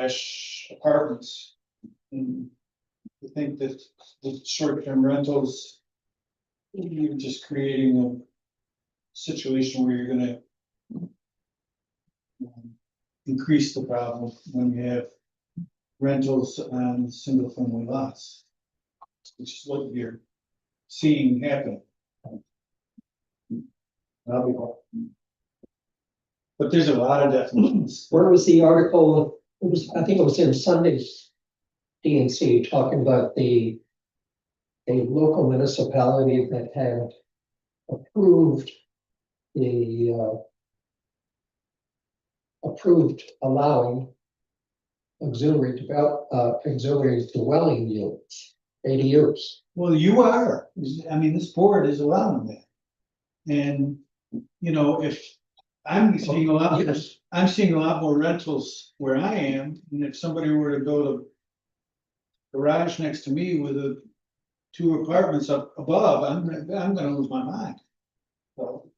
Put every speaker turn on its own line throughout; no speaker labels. slash apartments. And I think that the short-term rentals, you're just creating a situation where you're gonna um, increase the problem when you have rentals on single-family lots, which is what you're seeing happen. That'll be all. But there's a lot of definitions.
Where was the article, it was, I think it was in Sunday's DNC talking about the a local municipality that had approved the uh approved allowing auxiliary develop, uh auxiliary dwelling units, ADUs.
Well, you are, I mean, this board is allowing that. And, you know, if, I'm seeing a lot,
Yes.
I'm seeing a lot more rentals where I am, and if somebody were to go to garage next to me with a, two apartments up above, I'm, I'm gonna lose my mind. So,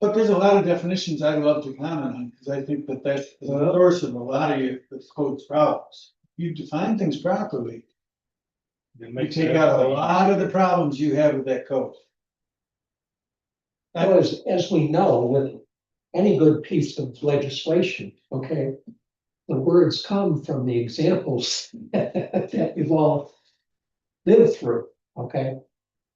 But there's a lot of definitions I'd love to comment on, because I think that that's the source of a lot of your, the code's problems. You define things properly, you take out a lot of the problems you have with that code.
Now, as, as we know, with any good piece of legislation, okay, the words come from the examples that we've all lived through, okay?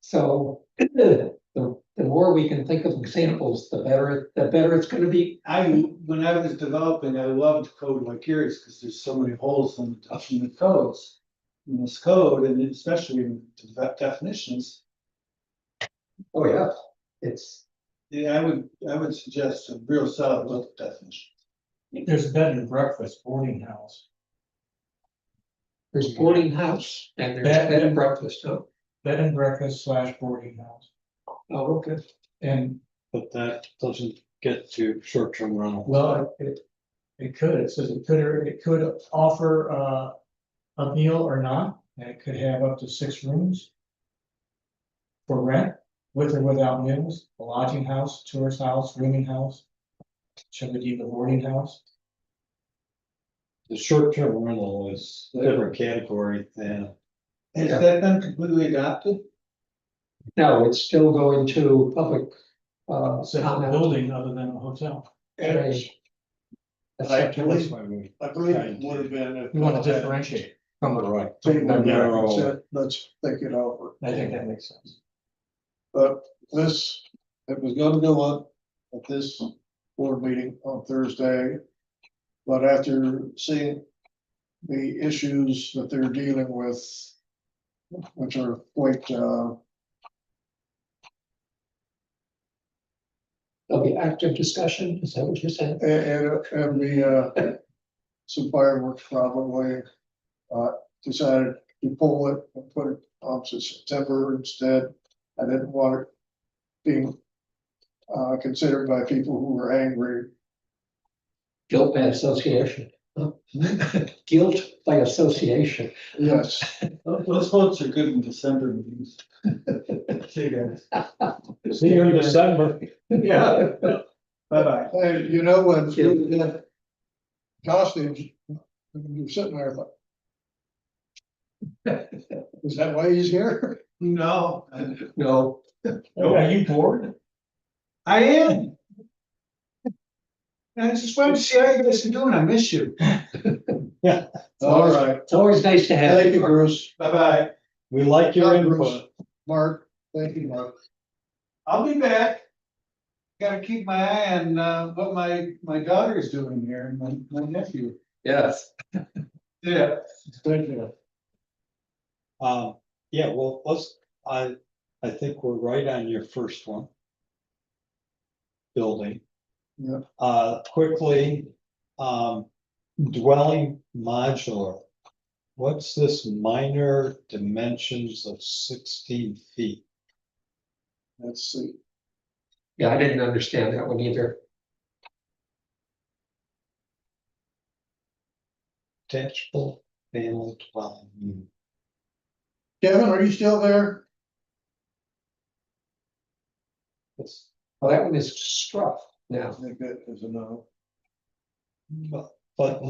So the, the more we can think of examples, the better, the better it's gonna be.
I, when I was developing, I loved code like yours, because there's so many holes in the, in the codes. In this code, and especially in the def- definitions,
Oh, yeah. It's,
yeah, I would, I would suggest a real solid look at definition.
There's bed and breakfast, boarding house,
there's boarding house and there's
Bed-
bed and breakfast, oh,
bed and breakfast slash boarding house.
oh, okay.
And,
But that doesn't get to short-term rental.
well, it, it could, it says it could, or it could offer, uh, a meal or not, and it could have up to six rooms for rent, with or without meals, a lodging house, tourist house, rooming house, should it even boarding house?
The short-term rental is a different category than,
Has
Yeah.
that been completely adopted?
No, it's still going to public, uh,
It's a
comment.
building other than a hotel.
That's up to us.
that's why we
I believe it would have been. if-
We want to differentiate from the,
right.
Take
More
one down,
narrow.
that's it, Let's think it over.
I think that makes sense.
This, it was gonna go up at this board meeting on Thursday. But after seeing the issues that they're dealing with, which are quite, uh,
There'll be active discussion, is that what you're saying?
and, and the, uh, some fireworks probably, uh, decided to pull it and put it on to September instead. I didn't want it being, uh, considered by people who were angry.
Guilt by association. Guilt by association.
Yes,
Those votes are good in December meetings. See you guys.
See you in December.
Yeah.
Bye-bye.
and you know, uh, when you did costumes, you're sitting there like. Is that why he's here?
No, I-
No,
Are you bored?
I am. And I just wanted to see how you guys are doing. I miss you.
All right,
it's always nice to have.
thank you, Bruce,
Bye-bye.
We like your
Yeah, Bruce.
input.
Mark, thank you, Mark.
I'll be back. Gotta keep my eye on, uh, what my, my daughter's doing here and my, my nephew.
Yes.
Yeah.
Thank you.
Um, yeah, well, let's, I, I think we're right on your first one. Building.
Yeah.
Uh, quickly, um, dwelling modular. What's this minor dimensions of sixteen feet?
Let's see.
Yeah, I didn't understand that one either.
Detachable family dwelling unit.
Kevin, are you still there?
It's-
Well, that one is struck now.
I think that is a no.
But, but